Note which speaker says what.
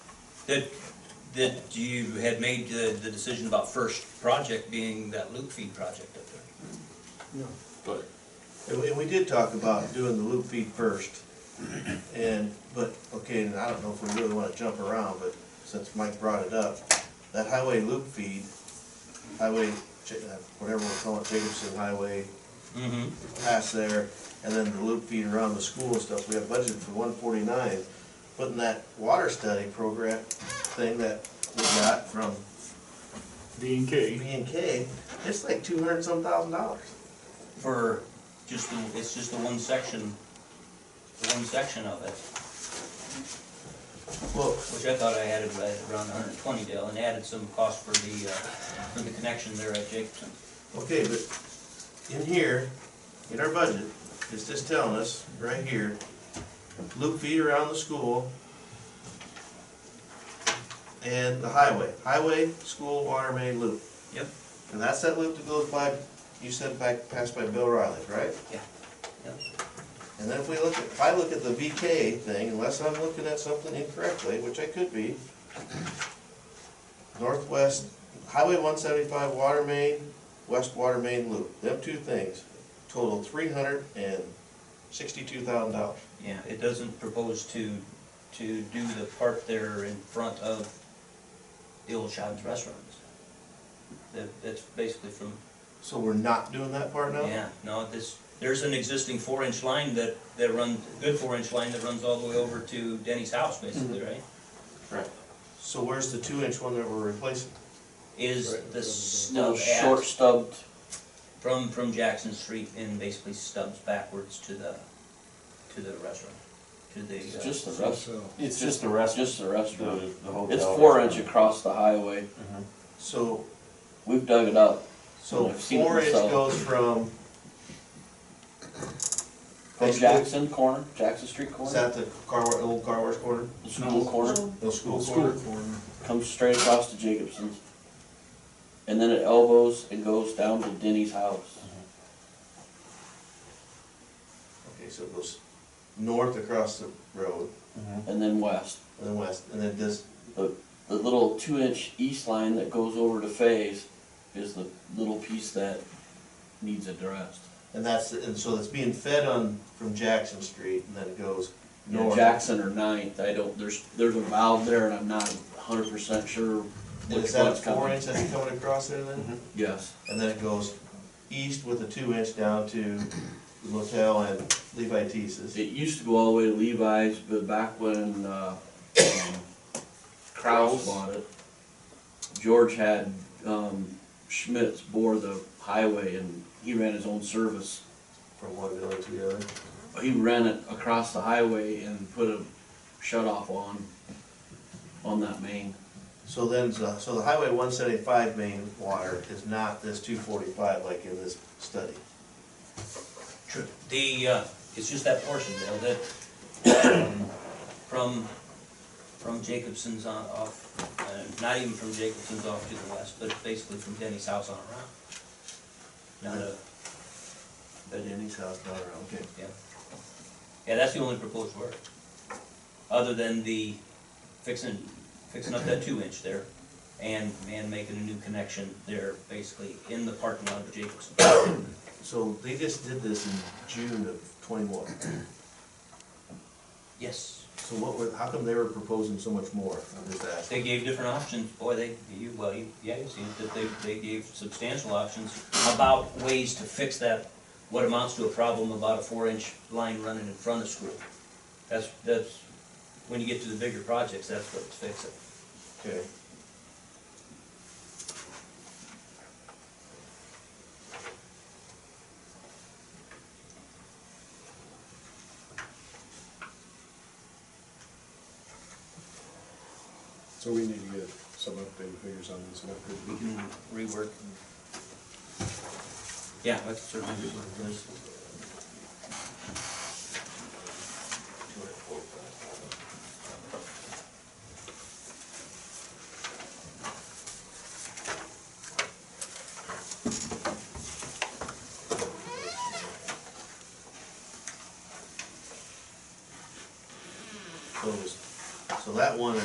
Speaker 1: That, that you had made the, the decision about first project being that Luke feed project up there.
Speaker 2: But
Speaker 3: And we, and we did talk about doing the loop feed first, and, but, okay, and I don't know if we really wanna jump around, but since Mike brought it up, that highway loop feed, highway, Ja- uh, whatever we're calling it, Jacobson Highway,
Speaker 1: Mm-hmm.
Speaker 3: past there, and then the loop feed around the school and stuff, we have budgeted for one forty-nine. But in that water study program thing that we got from
Speaker 2: D and K,
Speaker 3: B and K, it's like two hundred some thousand dollars.
Speaker 1: For just the, it's just the one section, the one section of it,
Speaker 3: Well,
Speaker 1: which I thought I added right around hundred and twenty Dale and added some cost for the, uh, for the connection there at Jacobson.
Speaker 3: Okay, but in here, in our budget, it's just telling us, right here, loop feed around the school and the highway, highway, school, water main loop.
Speaker 1: Yep.
Speaker 3: And that's that loop that goes by, you said back, passed by Bill Riley, right?
Speaker 1: Yeah. Yep.
Speaker 3: And then if we look at, if I look at the VK thing, unless I'm looking at something incorrectly, which I could be, Northwest Highway one seventy-five water main, west water main loop, them two things total three hundred and sixty-two thousand dollars.
Speaker 1: Yeah, it doesn't propose to, to do the part there in front of the old Shaw's restaurants. That, that's basically from,
Speaker 3: So we're not doing that part now?
Speaker 1: yeah, no, this, there's an existing four-inch line that, that runs, good four-inch line that runs all the way over to Denny's house, basically,
Speaker 4: Mm-hmm.
Speaker 1: right?
Speaker 3: Right. So where's the two-inch one that we're replacing?
Speaker 1: Is
Speaker 2: Right.
Speaker 1: the
Speaker 4: No
Speaker 1: stub
Speaker 4: short
Speaker 1: at,
Speaker 4: stubbed,
Speaker 1: from, from Jackson Street and basically stubs backwards to the, to the restaurant, to the.
Speaker 4: it's
Speaker 1: uh,
Speaker 4: just the rest,
Speaker 5: It's just the rest,
Speaker 4: just the restaurant.
Speaker 5: the, the hotel.
Speaker 4: It's four inch across the highway.
Speaker 3: So,
Speaker 4: We've dug it up.
Speaker 3: so
Speaker 4: I've seen it
Speaker 3: four inch
Speaker 4: myself.
Speaker 3: goes from.
Speaker 4: From Jackson corner, Jackson Street
Speaker 3: Is
Speaker 4: corner,
Speaker 3: that the car, wa- old car wash corner?
Speaker 4: the school corner,
Speaker 3: The school
Speaker 2: school
Speaker 3: corner?
Speaker 2: corner.
Speaker 4: comes straight across to Jacobson's. And then it elbows and goes down to Denny's house.
Speaker 3: Okay, so it goes north across the road
Speaker 4: And then west.
Speaker 3: and then west, and then this,
Speaker 4: The little two inch east line that goes over to Faye's is the little piece that needs addressed.
Speaker 3: and that's, and so it's being fed on from Jackson Street and then it goes
Speaker 4: Yeah,
Speaker 3: north.
Speaker 4: Jackson or Ninth, I don't, there's, there's a valve there and I'm not hundred percent sure
Speaker 3: And is
Speaker 4: which
Speaker 3: that a
Speaker 4: one's
Speaker 3: four
Speaker 4: coming. Mm-hmm.
Speaker 3: inch that's coming across there then?
Speaker 4: Yes.
Speaker 3: And then it goes east with a two inch down to the motel and Levi Tease's.
Speaker 4: It used to go all the way to Levi's, but back when, uh, um, Kraus bought it, George had, um, Schmitz bore the highway and he ran his own service.
Speaker 3: From one building to the other.
Speaker 4: He ran it across the highway and put a shut off on, on that main.
Speaker 3: So then, the- so the highway one seventy-five main water is not this two forty-five like in this study.
Speaker 1: True. The, uh, it's just that portion, Dale, that, um, from, from Jacobson's on, off, uh, not even from Jacobson's off to the west, but basically from Denny's house on around. Not a,
Speaker 3: At Denny's house, not around, okay.
Speaker 1: yeah, that's the only proposed work, other than the fixing, fixing up that two inch there and, and making a new connection there, basically in the parking lot of Jacobson.
Speaker 3: So they just did this in June of twenty-one.
Speaker 1: Yes,
Speaker 3: So what were, how come they were proposing so much more? I'm just asking.
Speaker 1: They gave different options, boy, they, you, well, you, yeah, you see that they, they gave substantial options about ways to fix that, what amounts to a problem about a four-inch line running in front of school. That's, that's, when you get to the bigger projects, that's what's fixing.
Speaker 3: Okay.
Speaker 5: So we need to get some updated figures on this, what could
Speaker 1: We can rework. Yeah, that's certainly rework this.
Speaker 3: So it was, so that one